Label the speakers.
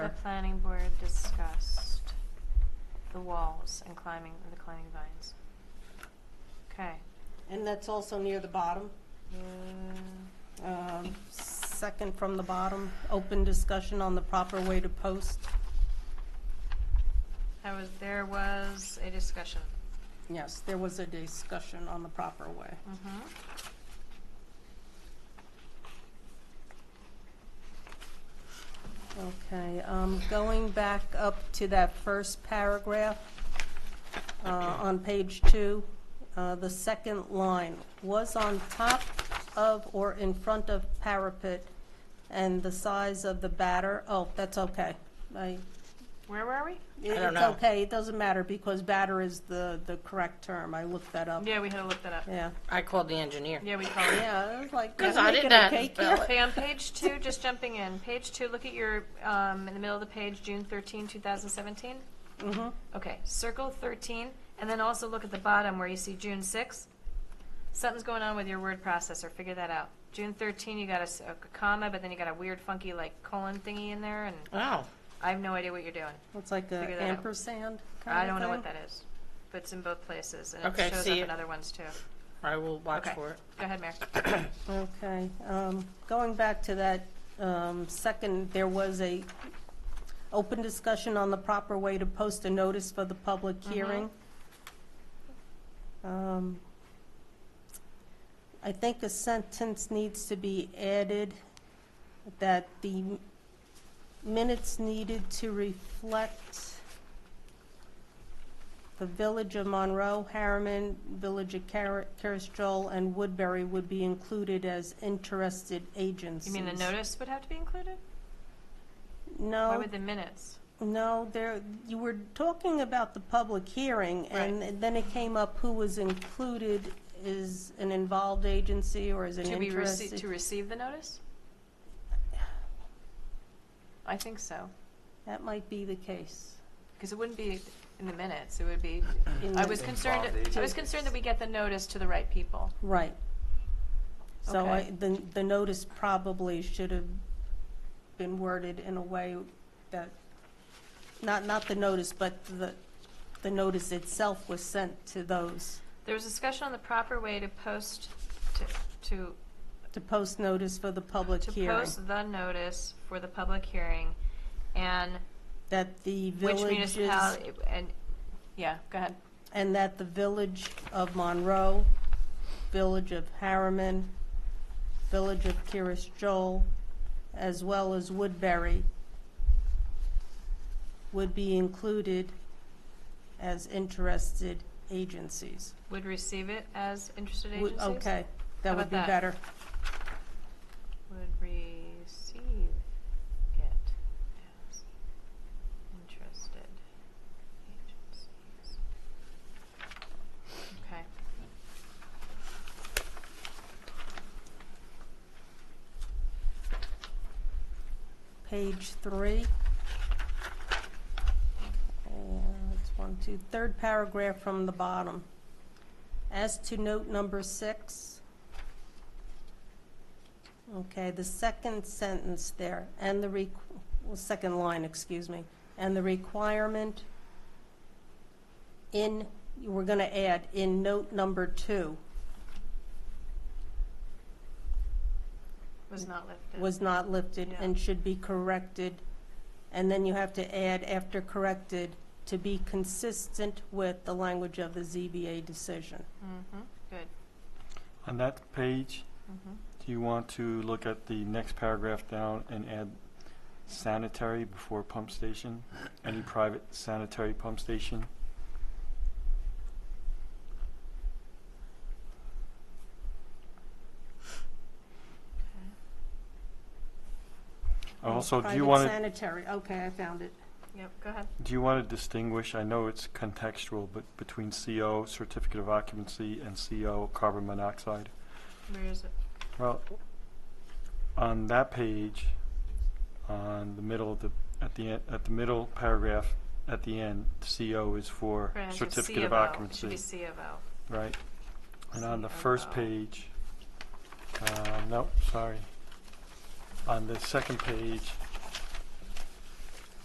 Speaker 1: planning board discussed the walls and climbing, the climbing vines. Okay.
Speaker 2: And that's also near the bottom,
Speaker 1: You-
Speaker 2: um, second from the bottom, open discussion on the proper way to post.
Speaker 1: That was, there was a discussion.
Speaker 2: Yes, there was a discussion on the proper way.
Speaker 1: Mhm.
Speaker 2: Okay, um, going back up to that first paragraph, uh, on page two, uh, the second line, was on top of or in front of parapet and the size of the batter, oh, that's okay. I,
Speaker 1: Where were we?
Speaker 2: it-
Speaker 3: don't
Speaker 2: it's
Speaker 3: know.
Speaker 2: okay, it doesn't matter because batter is the, the correct term, I looked that up.
Speaker 1: Yeah, we had to look that up.
Speaker 2: Yeah,
Speaker 3: I called the engineer.
Speaker 1: Yeah, we called it.
Speaker 2: yeah, it was like,
Speaker 3: 'Cause
Speaker 2: I'm
Speaker 3: I did
Speaker 2: making a
Speaker 3: that
Speaker 2: cake
Speaker 3: spell
Speaker 2: here.
Speaker 1: Okay, on page two, just jumping in, page two, look at your, um, in the middle of the page, June 13, 2017.
Speaker 2: Mhm.
Speaker 1: Okay, circle 13, and then also look at the bottom where you see June 6. Something's going on with your word processor, figure that out. June 13, you got a s- a comma, but then you got a weird funky like colon thingy in there, and
Speaker 3: Oh,
Speaker 1: I have no idea what you're doing.
Speaker 2: It's like
Speaker 1: Figure
Speaker 2: a
Speaker 1: that out.
Speaker 2: ampersand kind
Speaker 1: I
Speaker 2: of
Speaker 1: don't know what
Speaker 2: thing.
Speaker 1: that is, but it's in both places, and
Speaker 3: Okay,
Speaker 1: it shows up
Speaker 3: see
Speaker 1: in
Speaker 3: it.
Speaker 1: other ones too.
Speaker 3: I will watch
Speaker 1: Okay.
Speaker 3: for it.
Speaker 1: Go ahead, Mayor.
Speaker 2: Okay, um, going back to that, um, second, there was a open discussion on the proper way to post a notice for the public
Speaker 1: Mm-hmm.
Speaker 2: hearing. Um, I think a sentence needs to be added that the minutes needed to reflect the Village of Monroe, Harriman, Village of Car- Caristol, and Woodbury would be included as interested agencies.
Speaker 1: You mean the notice would have to be included? Why
Speaker 2: No,
Speaker 1: would the minutes?
Speaker 2: no, there, you were talking about the public hearing, and then it came up who was included is an involved agency or is an
Speaker 1: To be received,
Speaker 2: interested.
Speaker 1: to receive the notice? I think so,
Speaker 2: That might be the case.
Speaker 1: because it wouldn't be in the minutes, it would be
Speaker 2: in
Speaker 1: I
Speaker 2: the-
Speaker 1: was concerned, I was concerned that we get the notice to the right people.
Speaker 2: Right. So I,
Speaker 1: Okay.
Speaker 2: the, the notice probably should have been worded in a way that, not, not the notice, but the, the notice itself was sent to those,
Speaker 1: There was discussion on the proper way to post, to,
Speaker 2: to post notice for the
Speaker 1: to,
Speaker 2: public
Speaker 1: to
Speaker 2: hearing.
Speaker 1: post the notice for the public hearing and
Speaker 2: That the
Speaker 1: which
Speaker 2: villages,
Speaker 1: municipality, and, yeah, go ahead.
Speaker 2: and that the village of Monroe, village of Harriman, village of Kiris Joel, as well as Woodbury would be included as interested agencies.
Speaker 1: Would receive it as interested
Speaker 2: Would-
Speaker 1: agencies?
Speaker 2: Okay,
Speaker 1: How
Speaker 2: that would
Speaker 1: about
Speaker 2: be
Speaker 1: that?
Speaker 2: better.
Speaker 1: Would receive it as interested agencies. Okay.
Speaker 2: Page three. And it's one, two, third paragraph from the bottom. As to note number six. Okay, the second sentence there, and the requ, well, second line, excuse me, and the requirement in, we're gonna add in note number two,
Speaker 1: Was not lifted.
Speaker 2: was not lifted
Speaker 1: Yeah.
Speaker 2: and should be corrected. And then you have to add after corrected to be consistent with the language of the ZBA decision.
Speaker 1: Mm-hmm, good.
Speaker 4: On that page,
Speaker 1: Mm-hmm.
Speaker 4: do you want to look at the next paragraph down and add sanitary before pump station? Any private sanitary pump station?
Speaker 1: Okay.
Speaker 4: Also, do you want
Speaker 2: Private
Speaker 4: to,
Speaker 2: sanitary, okay, I found it.
Speaker 1: Yep, go ahead.
Speaker 4: do you want to distinguish, I know it's contextual, but between CO, certificate of occupancy, and CO, carbon monoxide?
Speaker 1: Where is it?
Speaker 4: Well, on that page, on the middle of the, at the, en- at the middle paragraph, at the end, CO is for
Speaker 1: Right, it says C
Speaker 4: certificate of
Speaker 1: O.
Speaker 4: occupancy.
Speaker 1: It should be C of O.
Speaker 4: Right, and on the first
Speaker 1: COO.
Speaker 4: page, uh, no, sorry. On the second page,